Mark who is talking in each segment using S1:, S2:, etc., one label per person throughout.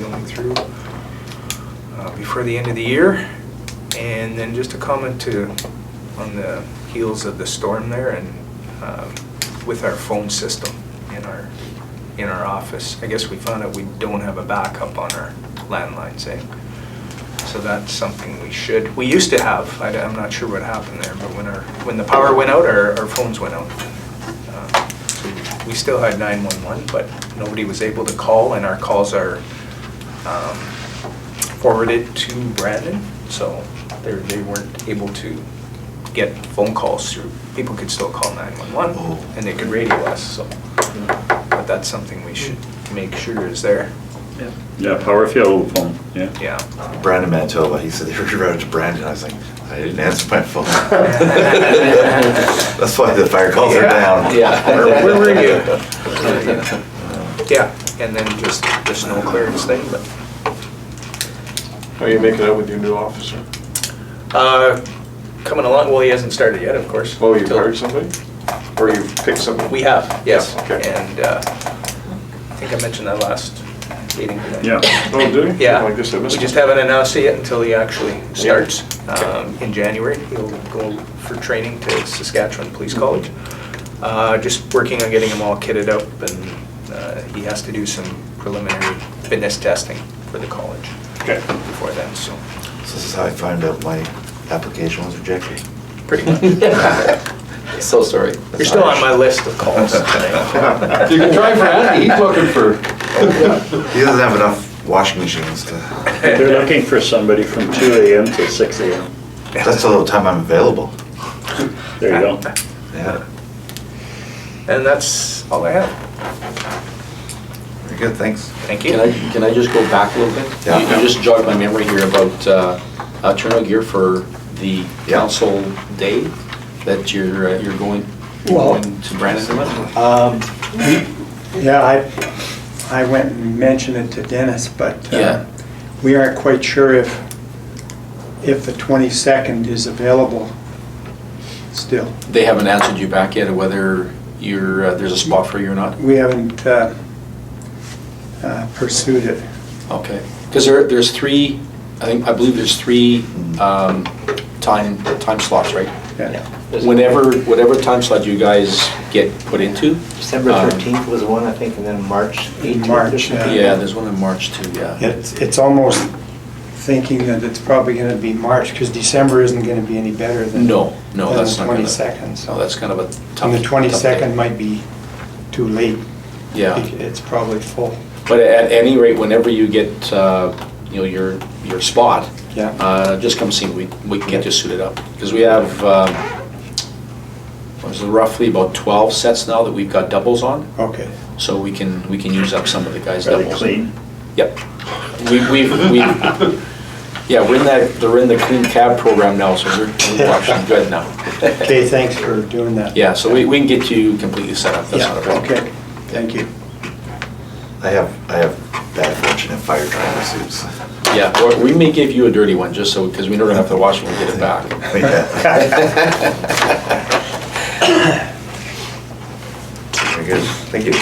S1: going through uh, before the end of the year. And then just a comment to, on the heels of the storm there and um, with our phone system in our, in our office. I guess we found out we don't have a backup on our landline, say. So that's something we should, we used to have, I, am not sure what happened there, but when our, when the power went out, our, our phones went out. Uh, so We still had 911, but nobody was able to call and our calls are um, forwarded to Brandon. So they, they weren't able to get phone calls through. People could still call 911
S2: Oh.
S1: and they could radio us, so. But that's something we should make sure is there,
S3: Yeah, power if you have a phone, yeah.
S1: yeah.
S2: Brandon Manitoba, he said they rerouted to Brandon. I was like, I didn't answer my phone. That's why the fire calls are
S1: Yeah.
S2: down.
S4: Yeah.
S1: Where- where were you?
S2: Uh,
S1: Yeah, and then just the snow clearance thing, but,
S5: How are you making out with your new officer?
S1: uh, coming along, well, he hasn't started yet, of course.
S5: Oh, you
S1: Till-
S5: hired somebody? Or you picked somebody?
S1: We have, yes,
S5: Yeah, okay.
S1: and, uh, I think I mentioned that last meeting. didn't I?
S3: Yeah.
S5: Oh, did he?
S1: Yeah.
S5: Oh, I guess I missed
S1: We just
S5: it.
S1: haven't announced it yet until he actually starts
S5: Okay.
S1: um, in January. He'll go for training to Saskatchewan
S5: Mm-hmm.
S1: Police College. Uh, Just working on getting him all kitted up, and uh, he has to do some preliminary fitness testing for the college
S5: Okay.
S1: before then, so,
S2: So This is how I found out my application was rejected.
S1: pretty much.
S4: So sorry.
S1: You're still on my list of calls tonight.
S4: You can try for Andy, he's
S5: looking for.
S2: He doesn't have enough washing machines to,
S3: They're looking for somebody from two AM till six AM.
S2: that's the little time I'm available.
S3: There you go.
S2: Yeah,
S1: And that's all I have.
S2: very good, thanks.
S1: Thank
S4: Can I,
S1: you.
S4: can I just go back a little bit?
S2: Yeah.
S4: You you just jogged my memory here about uh, uh, turnout gear for the
S2: Yeah.
S4: council day that you're, uh, you're going, you're
S6: Well-
S4: going to Brandon with?
S6: Um, we- Yeah, I, I went and mentioned it to Dennis, but uh,
S4: Yeah.
S6: we aren't quite sure if, if the 22nd is available still.
S4: They haven't answered you back yet whether you're, uh, there's a spot for you or not?
S6: We haven't uh, uh, pursued it.
S4: Okay, because there, there's three, I think, I believe there's three um, time, time slots, right?
S6: Yeah.
S4: Whenever, whatever time slot you guys get put into.
S7: December
S4: um,
S7: 13th was one, I think, and then March 18th. or
S6: March,
S4: uh,
S7: something.
S6: yeah.
S4: Yeah, there's one in March too, yeah.
S6: It's, it's almost thinking that it's probably going to be March, because December isn't going to be any better than.
S4: No, no,
S6: than
S4: that's not gonna.
S6: the 22nd, so.
S4: No, that's kind of a tough.
S6: And the
S4: tough
S6: 22nd
S4: day.
S6: might be too late.
S4: Yeah.
S6: It's probably full.
S4: But at any rate, whenever you get, uh, you know, your, your spot.
S6: Yeah.
S4: uh, Just come see, me. we, we can get you suited up. Because we have, um, what is it, roughly about 12 sets now that we've got doubles on.
S6: Oh, Okay.
S4: So we can, we can use up some of the guys'
S3: Really
S4: doubles.
S3: clean.
S4: Yep. We- We've, we've, yeah, we're in that, they're in the clean cab program now, so we're we're washing good now.
S6: Okay, thanks for doing that.
S4: Yeah, so we, we can get you completely set up, that's
S6: Yeah,
S4: not a problem.
S6: okay, thank you.
S2: I have, I have bad fortune in fire driver suits.
S4: Yeah, or we may give you a dirty one, just so, because we don't have to wash it when we get it back.
S2: Yeah. Very good, thank you.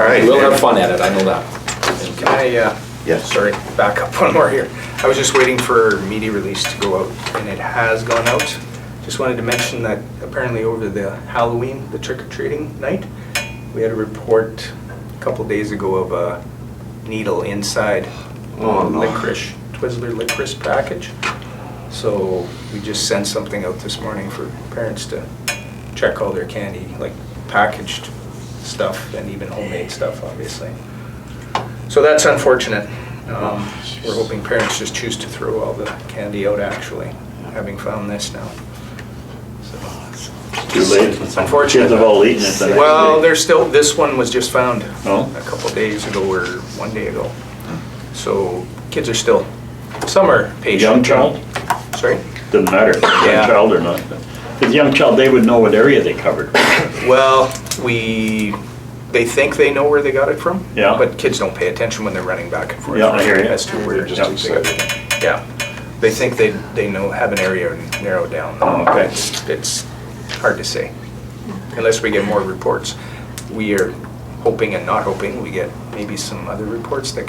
S2: All right.
S4: We'll have fun at it, I know that.
S1: Can I, uh,
S2: Yeah.
S1: sorry, back up one more here. I was just waiting for media release to go out, and it has gone out. Just wanted to mention that apparently over the Halloween, the trick-or-treating night, we had a report a couple days ago of a needle inside
S5: Oh, no.
S1: licorice, Twizzler licorice package. So we just sent something out this morning for parents to check all their candy, like packaged stuff and even homemade stuff, obviously. So that's unfortunate. Um, We're hoping parents just choose to throw all the candy out, actually, having found this now. So-
S3: Too late.
S1: It's unfortunate.
S3: Kids have all eaten it. the next
S1: Well,
S3: day.
S1: there's still, this one was just found
S3: Oh. Hmm.
S1: a couple days ago or one day ago. So kids are still, some are patient.
S3: Young child?
S1: Sorry?
S3: Doesn't matter, if it's a
S1: Yeah.
S3: young child or not. With young child, they would know what area they covered.
S1: Well, we, they think they know where they got it from.
S3: Yeah.
S1: But kids don't pay attention when they're running back and forth.
S3: Yeah, I hear you.
S1: As to where.
S5: They're just excited.
S1: Yeah. They think they, they know, have an area narrowed down.
S3: Oh, okay.
S1: It's- It's hard to say, unless we get more reports. We are hoping and not hoping, we get maybe some other reports that